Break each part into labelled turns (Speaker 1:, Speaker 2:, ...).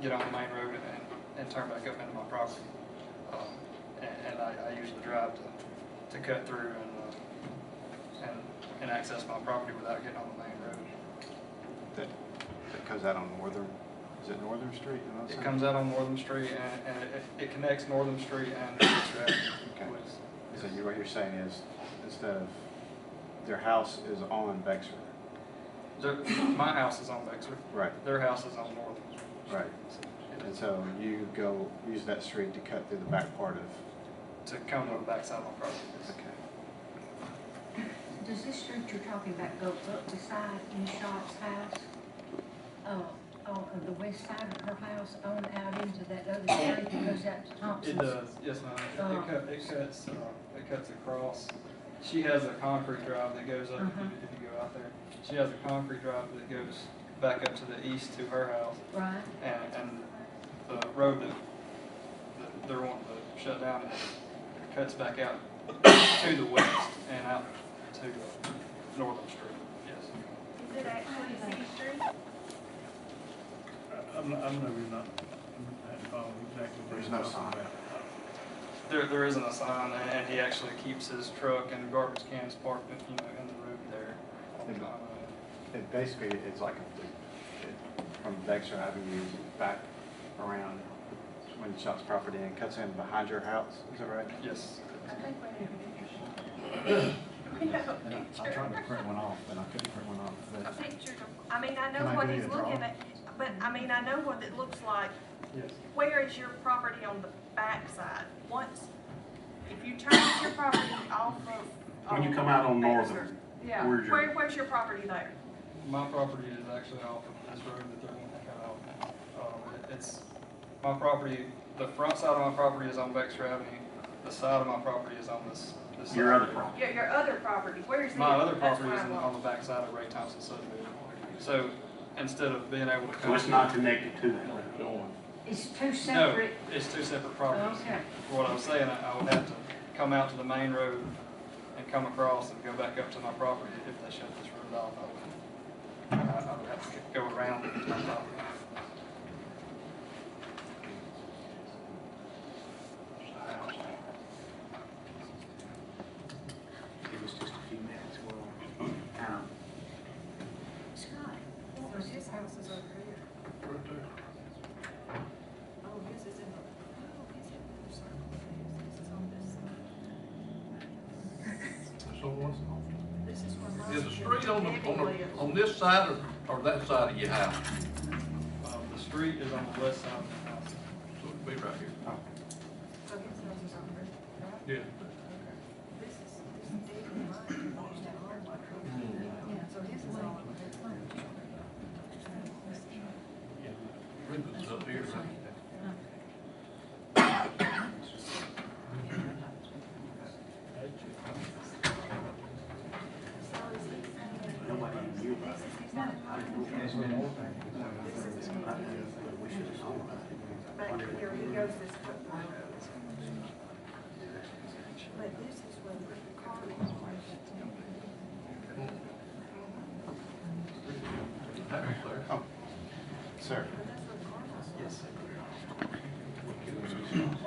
Speaker 1: get on the main road and, and turn back up into my property. Um, And, and I, I usually drive to, to cut through and, uh, and, and access my property without getting on the main road.
Speaker 2: That, that comes out on Northern, is it Northern Street? in Los
Speaker 1: It
Speaker 2: Angeles?
Speaker 1: comes out on Northern Street and, and it, it connects Northern Street and Dexter
Speaker 2: Okay.
Speaker 1: Avenue. which-
Speaker 2: So you, what you're saying is, instead of, their house is on Bexar.
Speaker 1: Their- My house is on Bexar,
Speaker 2: Right,
Speaker 1: their house is on Northern.
Speaker 2: right.
Speaker 1: It's
Speaker 2: And so you go, use that street to cut through the back part of,
Speaker 1: To come to the backside of my property.
Speaker 2: okay.
Speaker 3: Does this street you're talking about go up beside Inshaw's house? Uh, on the west side of her house, on out into that other street that goes out to
Speaker 1: It uh,
Speaker 3: Thompson's?
Speaker 1: does, yes, ma'am. It- It cut, it cuts, uh, it cuts across. She has a concrete drive that goes up, if you- if you go out there. She has a concrete drive that goes back up to the east to her house.
Speaker 3: Right,
Speaker 1: And, and the road that, that they're wanting to shut down, it cuts back out to the west and out to uh, Northern Street, yes.
Speaker 4: Is it actually C Street?
Speaker 5: I- I'm, I'm not, really not, I'm not following exactly. what
Speaker 2: There's
Speaker 5: you're
Speaker 2: no
Speaker 5: talking
Speaker 2: sign.
Speaker 5: about. uh,
Speaker 1: There, there isn't a sign, and and he actually keeps his truck and garbage cans parked, you know, in the road there Uh, all the time.
Speaker 2: It basically, it's like a loop. It- From Dexter Avenue back around Windshot's property and cuts in behind your house, is that right?
Speaker 1: Yes.
Speaker 4: I think we have a picture. We have
Speaker 2: And I-
Speaker 4: a
Speaker 2: I'm trying to
Speaker 4: picture.
Speaker 2: print one off, but I couldn't print one off.
Speaker 4: A
Speaker 2: But
Speaker 4: picture of, I mean, I know
Speaker 2: Can I
Speaker 4: what
Speaker 2: do
Speaker 4: he's
Speaker 2: the drawing?
Speaker 4: looking at, but I mean, I know what it looks like.
Speaker 1: Yes.
Speaker 4: Where is your property on the backside? Once, if you turn your property off of.
Speaker 6: When you come out on
Speaker 4: Baxter,
Speaker 6: Northern,
Speaker 4: Yeah,
Speaker 6: where's your-
Speaker 4: where, where's your property there?
Speaker 1: My property is actually off of this road that they're wanting to cut out. Um, it- It's, my property, the front side of my property is on Baxter Avenue, the side of my property is on this, this.
Speaker 6: Your
Speaker 1: side.
Speaker 6: other property.
Speaker 4: Your, your other property, where's it?
Speaker 1: My other
Speaker 4: That's
Speaker 1: property
Speaker 4: what
Speaker 1: is
Speaker 4: I
Speaker 1: on- on
Speaker 4: want.
Speaker 1: the back side of Ray Thompson subdivision. So instead of being able to.
Speaker 6: So
Speaker 1: come-
Speaker 6: it's not connected to that road.
Speaker 3: it's two
Speaker 1: No,
Speaker 3: separate,
Speaker 1: it's two separate properties.
Speaker 3: okay.
Speaker 1: What I'm saying, I I would have to come out to the main road and come across and go back up to my property if they shut this road off. I would, I I would have to go around to my property.
Speaker 6: It was just a few minutes, well, um,
Speaker 3: Scott, what
Speaker 4: So
Speaker 3: was
Speaker 4: his
Speaker 3: his
Speaker 4: house is over here. Oh, his is in the, oh, he's in the circle. His is on this side. This is where mine
Speaker 7: Is the street on the, on
Speaker 4: Debbie
Speaker 7: the,
Speaker 4: lives.
Speaker 7: on this side or, or that side of your house?
Speaker 1: Um, The street is on the west side of the house.
Speaker 7: So it'd be right here.
Speaker 4: So his house is over here. right?
Speaker 7: Yeah.
Speaker 4: This is, this is Debbie mine. So his is all over here.
Speaker 7: Ribbon's up here, right?
Speaker 6: nobody knew about it.
Speaker 4: He's not in mine.
Speaker 6: But we should have known about it.
Speaker 4: Back here, he goes this way. But this is where the car was.
Speaker 7: That was there.
Speaker 2: Sir?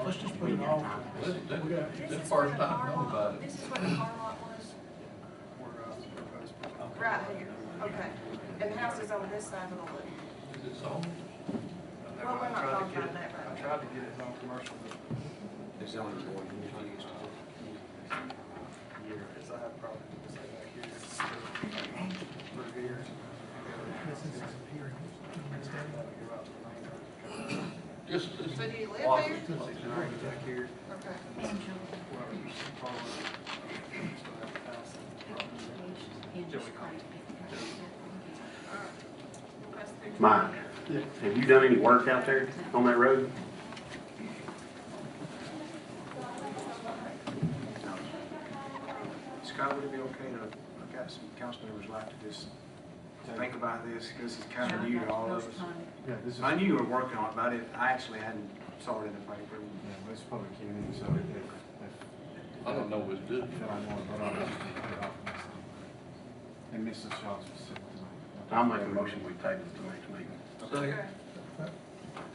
Speaker 5: Let's just put it off.
Speaker 7: That's, that-
Speaker 4: This
Speaker 7: that's the
Speaker 4: is where
Speaker 7: first
Speaker 4: the
Speaker 7: time I
Speaker 4: car
Speaker 7: know
Speaker 4: lot,
Speaker 7: about it.
Speaker 4: this is where the car lot was,
Speaker 1: Where I was proposed.
Speaker 4: right here, okay. And the house is on this side of the loop.
Speaker 7: Is it sold?
Speaker 4: Well, we're not talking about that
Speaker 1: I
Speaker 4: right now.
Speaker 1: tried to get it on commercial, but
Speaker 6: There's only one who used to.
Speaker 1: because I have problems with like back here. it's still Through here. Instead of having to go out to the main road.
Speaker 7: Just, just.
Speaker 4: So do you live
Speaker 7: walk
Speaker 4: there?
Speaker 7: this place.
Speaker 1: And I was back here.
Speaker 4: Okay. That's the-
Speaker 6: Mike, have you done any work out there on that road?
Speaker 8: Scott, would it be okay to, I've got some council members like to just think about this, because it's kind of new to all of us.
Speaker 2: Yeah, this is,
Speaker 8: I
Speaker 2: yeah,
Speaker 8: knew you were working on it, but I didn't, I actually hadn't saw it in the paper.
Speaker 2: but it's public hearing, so if,
Speaker 7: I don't know what's good.
Speaker 2: if, if I want, but I'll just put it off. next time. And Mrs. Shaw specifically.
Speaker 6: I'll make a motion, we table it to next meeting.
Speaker 4: Okay.